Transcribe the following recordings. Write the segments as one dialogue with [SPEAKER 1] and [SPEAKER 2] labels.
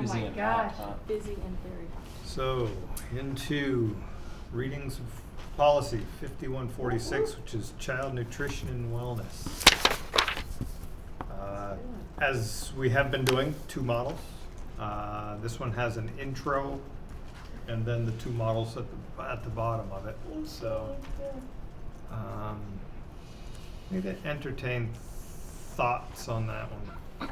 [SPEAKER 1] Oh
[SPEAKER 2] Busy
[SPEAKER 1] my
[SPEAKER 2] and hot,
[SPEAKER 1] gosh,
[SPEAKER 2] huh?
[SPEAKER 1] busy and very hot.
[SPEAKER 3] So, into readings of policy fifty-one forty-six, which is child nutrition and wellness. Uh, As we have been doing, two models. Uh, This one has an intro and then the two models at the, at the bottom of it, so. um, Need to entertain thoughts on that one.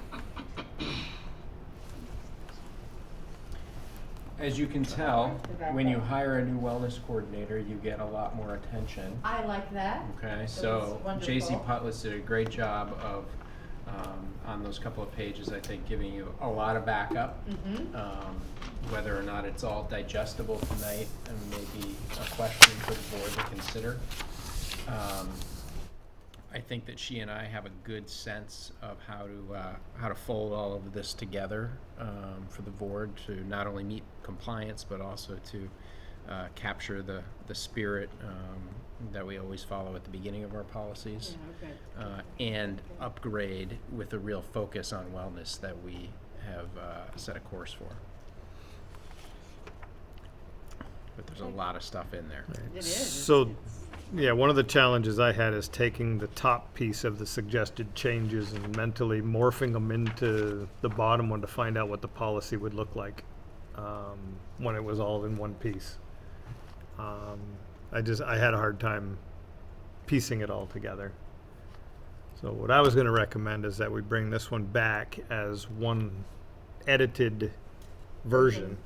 [SPEAKER 2] As you can tell, when you hire a new wellness coordinator, you get a lot more attention.
[SPEAKER 1] I like that.
[SPEAKER 2] Okay,
[SPEAKER 1] That
[SPEAKER 2] so
[SPEAKER 1] was wonderful.
[SPEAKER 2] J.C. Putless did a great job of, um, on those couple of pages, I think, giving you a lot of backup.
[SPEAKER 1] Mhm.
[SPEAKER 2] Um, whether or not it's all digestible tonight, and maybe a question for the board to consider. Um, I think that she and I have a good sense of how to, uh, how to fold all of this together, um, for the board to not only meet compliance, but also to, uh, capture the, the spirit, um, that we always follow at the beginning of our policies. Uh, and upgrade with a real focus on wellness that we have, uh, set a course for. But there's a lot of stuff in there.
[SPEAKER 1] It is.
[SPEAKER 3] So, yeah, one of the challenges I had is taking the top piece of the suggested changes and mentally morphing them into the bottom one to find out what the policy would look like um, when it was all in one piece. Um, I just, I had a hard time piecing it all together. So what I was gonna recommend is that we bring this one back as one edited version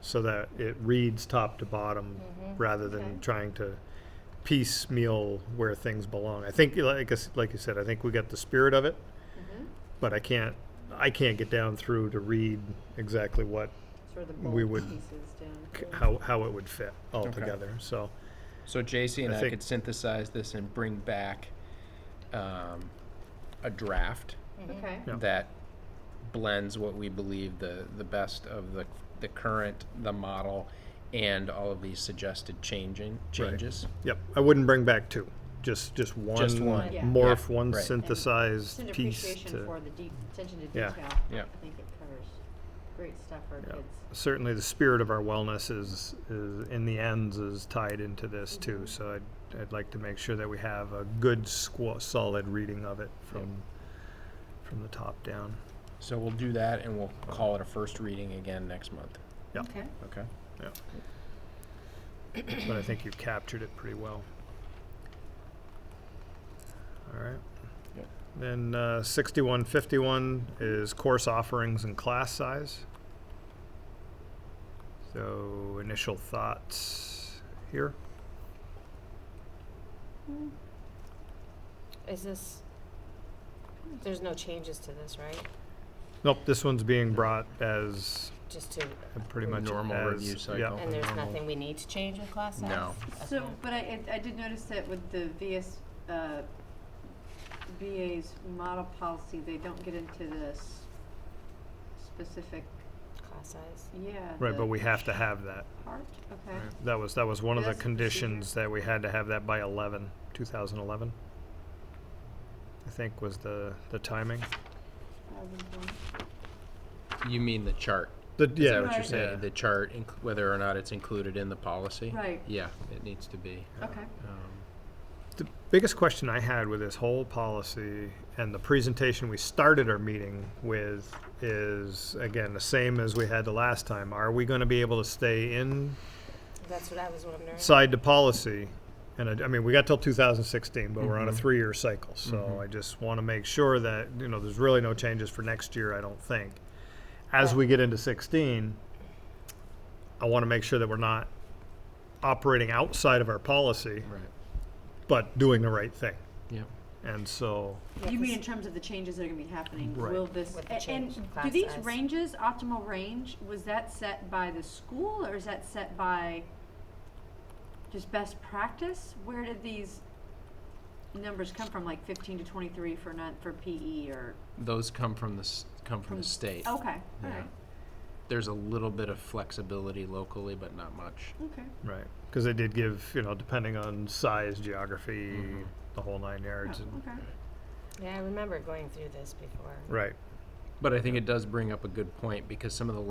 [SPEAKER 3] so that it reads top to bottom rather than
[SPEAKER 1] Mm-hmm. Okay.
[SPEAKER 3] trying to piecemeal where things belong. I think, like I s like you said, I think we got the spirit of it,
[SPEAKER 1] Mhm.
[SPEAKER 3] but I can't, I can't get down through to read exactly what,
[SPEAKER 1] Sort of the
[SPEAKER 3] we
[SPEAKER 1] bold
[SPEAKER 3] would-
[SPEAKER 1] pieces down.
[SPEAKER 3] c- how, how it would fit all
[SPEAKER 2] Okay.
[SPEAKER 3] together. So,
[SPEAKER 2] So JC and
[SPEAKER 3] I
[SPEAKER 2] I,
[SPEAKER 3] think-
[SPEAKER 2] could synthesize this and bring back um, a draft
[SPEAKER 1] Mm-hmm. Okay,
[SPEAKER 3] Yeah.
[SPEAKER 2] that blends what we believe the, the best of the, the current, the model, and all of these suggested changing changes.
[SPEAKER 3] yep, I wouldn't bring back two, just, just one.
[SPEAKER 2] Just one.
[SPEAKER 1] Yeah.
[SPEAKER 3] Morph,
[SPEAKER 2] Yeah,
[SPEAKER 3] one
[SPEAKER 2] right.
[SPEAKER 1] it's
[SPEAKER 3] synthesized
[SPEAKER 1] an
[SPEAKER 3] piece
[SPEAKER 1] appreciation for
[SPEAKER 3] to,
[SPEAKER 1] the deep, attention to
[SPEAKER 3] Yeah.
[SPEAKER 1] detail.
[SPEAKER 2] Yeah.
[SPEAKER 1] I think it covers great stuff for
[SPEAKER 3] Yeah.
[SPEAKER 1] kids.
[SPEAKER 3] certainly the spirit of our wellness is, is, in the ends is tied into this too. So I'd, I'd like to make sure that we have a good squa, solid reading of it from, from the top down.
[SPEAKER 2] So we'll do that and we'll call it a first reading again next month.
[SPEAKER 3] Yeah.
[SPEAKER 1] Okay.
[SPEAKER 2] Okay.
[SPEAKER 3] but I think you captured it pretty well. All right.
[SPEAKER 2] Yep.
[SPEAKER 3] Then uh, 6151 is course offerings and class size. So initial thoughts here.
[SPEAKER 4] Is this, there's no changes to this, right?
[SPEAKER 3] Nope, this one's being brought as
[SPEAKER 4] Just to,
[SPEAKER 3] pretty much
[SPEAKER 2] Normal
[SPEAKER 3] as-
[SPEAKER 2] review
[SPEAKER 3] yeah,
[SPEAKER 2] cycle.
[SPEAKER 4] and there's
[SPEAKER 3] normal.
[SPEAKER 4] nothing we need to change with class size?
[SPEAKER 2] No.
[SPEAKER 1] So,
[SPEAKER 4] Okay.
[SPEAKER 1] but I, I- I did notice that with the VS, uh, VA's model policy, they don't get into this specific,
[SPEAKER 4] Class size?
[SPEAKER 1] yeah.
[SPEAKER 3] Right,
[SPEAKER 1] the
[SPEAKER 3] but we have to have that.
[SPEAKER 1] Part, okay.
[SPEAKER 2] Right.
[SPEAKER 3] That was that was one of the
[SPEAKER 1] That's the procedure.
[SPEAKER 3] conditions that we had to have that by 11, 2011. I think was the the timing.
[SPEAKER 1] I was wrong.
[SPEAKER 2] You mean the chart?
[SPEAKER 3] The,
[SPEAKER 2] Is
[SPEAKER 3] yeah,
[SPEAKER 2] that what you're
[SPEAKER 1] Right.
[SPEAKER 2] saying?
[SPEAKER 3] Yeah.
[SPEAKER 2] The chart, inc- whether or not it's included in the policy?
[SPEAKER 1] Right. Oh.
[SPEAKER 2] Yeah, it needs to be.
[SPEAKER 1] Okay.
[SPEAKER 2] Um,
[SPEAKER 3] The biggest question I had with this whole policy and the presentation we started our meeting with is, again, the same as we had the last time. Are we gonna be able to stay inside
[SPEAKER 4] That's what I was wondering.
[SPEAKER 3] the policy? And I, I mean, we got till two thousand sixteen, but we're on a
[SPEAKER 2] Mhm.
[SPEAKER 3] three-year cycle, so
[SPEAKER 2] Mhm.
[SPEAKER 3] I just wanna make sure that, you know, there's really no changes for next year, I don't think. As we get into sixteen, I wanna make sure that we're not operating outside of our policy,
[SPEAKER 2] Right,
[SPEAKER 3] but doing the right thing.
[SPEAKER 2] yeah.
[SPEAKER 3] And so,
[SPEAKER 4] Yeah,
[SPEAKER 1] You mean
[SPEAKER 4] 'cause-
[SPEAKER 1] in terms of the changes that are gonna be happening?
[SPEAKER 3] Right.
[SPEAKER 1] Will this,
[SPEAKER 4] With the
[SPEAKER 1] a- and
[SPEAKER 4] change in class
[SPEAKER 1] do these
[SPEAKER 4] size.
[SPEAKER 1] ranges, optimal range, was that set by the school or is that set by just best practice? Where did these numbers come from, like fifteen to twenty-three for not, for PE or,
[SPEAKER 2] Those come from the, s- come from the
[SPEAKER 1] From- Oh,
[SPEAKER 2] state.
[SPEAKER 1] okay, alright,
[SPEAKER 2] Yeah. There's a little bit of flexibility locally, but not much.
[SPEAKER 1] okay.
[SPEAKER 3] right, because they did give, you know, depending on size, geography,
[SPEAKER 2] Mhm.
[SPEAKER 3] the whole nine
[SPEAKER 1] Oh,
[SPEAKER 3] yards. and-
[SPEAKER 1] okay.
[SPEAKER 4] Yeah, I remember going through this before.
[SPEAKER 3] Right.
[SPEAKER 2] But I think it does bring up a good point because some of the